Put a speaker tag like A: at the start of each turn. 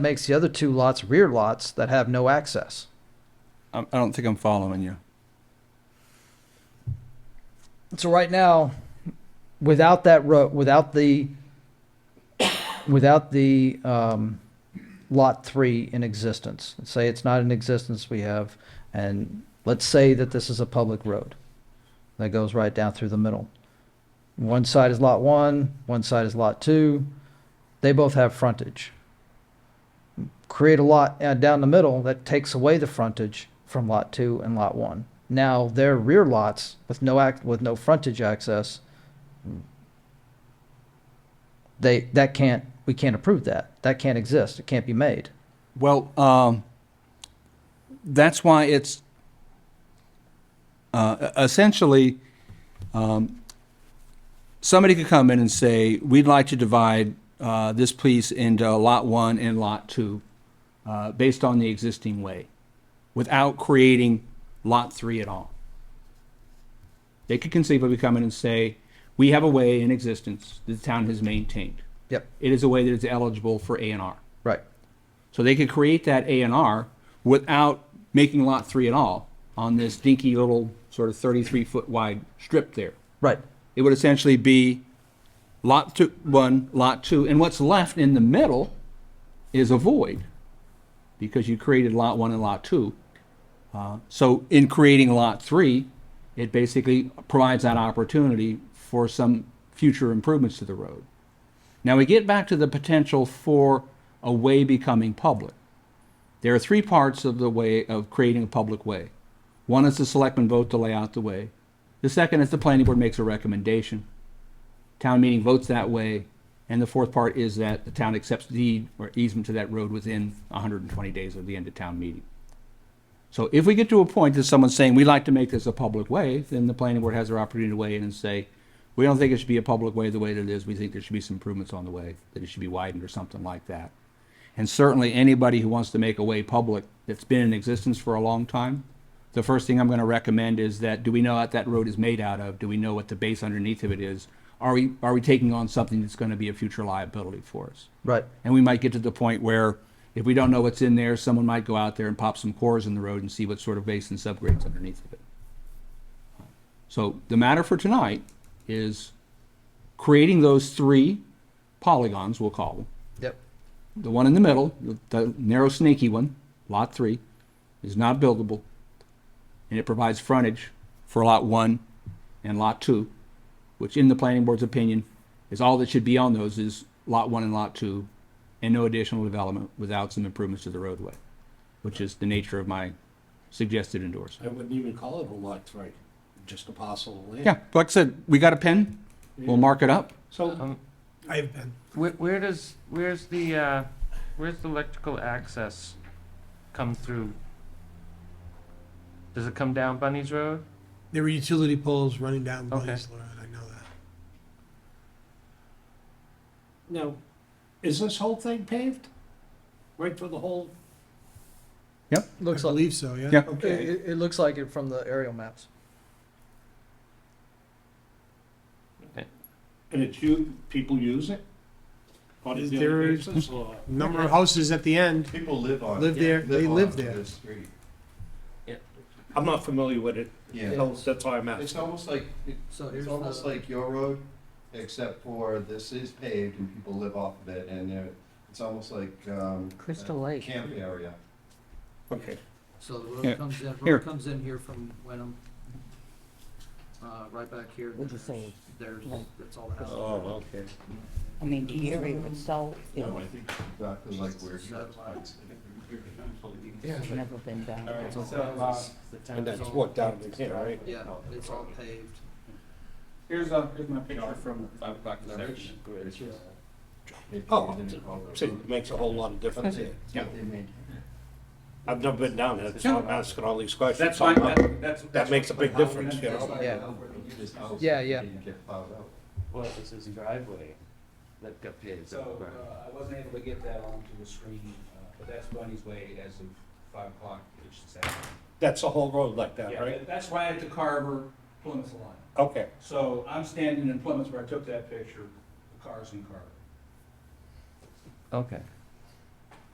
A: makes the other two lots rear lots that have no access.
B: I I don't think I'm following you.
A: So right now, without that road, without the, without the, um, lot three in existence, let's say it's not in existence we have, and let's say that this is a public road that goes right down through the middle. One side is lot one, one side is lot two, they both have frontage. Create a lot uh, down the middle that takes away the frontage from lot two and lot one. Now their rear lots with no act with no frontage access. They that can't we can't approve that. That can't exist. It can't be made.
B: Well, um, that's why it's uh, essentially um, somebody could come in and say, "We'd like to divide uh, this piece into Lot One and Lot Two, uh, based on the existing way, without creating Lot Three at all." They could conceivably come in and say, "We have a way in existence that the town has maintained.
A: Yep.
B: It is a way that is eligible for A and R."
A: Right.
B: So they could create that A and R without making lot three at all on this dinky little sort of thirty-three foot wide strip there.
A: Right.
B: It would essentially be lot two, one, lot two, and what's left in the middle is a void because you created lot one and lot two. Uh, so in creating lot three, it basically provides that opportunity for some future improvements to the road. Now we get back to the potential for a way becoming public. There are three parts of the way of creating a public way. One is the selectmen vote to lay out the way. The second is the planning board makes a recommendation. Town meeting votes that way. And the fourth part is that the town accepts deed or easement to that road within 120 days of the end of town meeting. So if we get to a point that someone's saying, we'd like to make this a public way, then the planning board has their opportunity to weigh in and say, we don't think it should be a public way the way that it is. We think there should be some improvements on the way, that it should be widened or something like that. And certainly anybody who wants to make a way public that's been in existence for a long time, the first thing I'm going to recommend is that, do we know what that road is made out of? Do we know what the base underneath of it is? Are we, are we taking on something that's going to be a future liability for us?
A: Right.
B: And we might get to the point where if we don't know what's in there, someone might go out there and pop some cores in the road and see what sort of base and subgrades underneath of it. So the matter for tonight is creating those three polygons, we'll call them.
A: Yep.
B: The one in the middle, the narrow snaky one, lot three, is not buildable. And it provides frontage for lot one and lot two, which in the planning board's opinion is all that should be on those is lot one and lot two and no additional development without some improvements to the roadway, which is the nature of my suggested endorsement.
C: I wouldn't even call it a lot three, just a parcel of land.
B: Yeah, like I said, we got a pen, we'll mark it up.
C: So, I've been,
D: Where, where does, where's the, uh, where's the electrical access come through? Does it come down Bunny's Road?
E: There were utility poles running down
D: Okay.
E: Blaze Road, I know that.
C: now, is this whole thing paved? Right for the whole,
A: Looks
E: I
A: like
E: believe so, yeah.
B: Yeah.
A: it,
C: okay,
A: it, it looks like it from the aerial maps.
C: and it's you, people use it? On a
E: Is
C: daily
E: there-
C: basis, or-
E: Number of houses at the end
F: People live on.
E: live there, they
F: on
E: live there.
F: this street.
C: I'm not familiar with it,
F: Yeah,
C: so that's why I'm
F: it's
C: asking.
F: almost like,
A: So
F: it's almost like your road, except for this is paved and people live off of it and they're- it's almost like, um.
G: Crystal
F: a
G: Lake.
F: Camp area.
C: Okay,
A: So the
B: Here.
A: road comes in,
B: Here.
A: road comes in here from Wenham, uh, right back here.
G: With the same.
A: There's,
G: Yeah.
A: that's all that has.
C: oh, okay.
G: I mean, the area itself, you
F: No, I
G: know,
F: think exactly like where.
G: it's never been done.
C: And that's what down in here, right?
A: Yeah, it's all paved.
B: Here's, uh, here's my picture from five o'clock
C: Oh, See, it makes a whole lot of difference here. I've never been down there, so I'm asking all these questions.
B: That's fine, that, that's.
C: That makes a big difference, you know?
A: Yeah. Yeah, yeah.
D: Well, it's his driveway that got paved.
H: So, uh, I wasn't able to get that onto the screen, uh, but that's Bunny's Way as of five o'clock each Saturday.
C: That's a whole road like that,
H: Yeah,
C: right?
H: that- that's right at the Carver Plymouth line.
C: Okay,
H: So I'm standing in Plymouth where I took that picture, the cars in Carver.
D: Okay,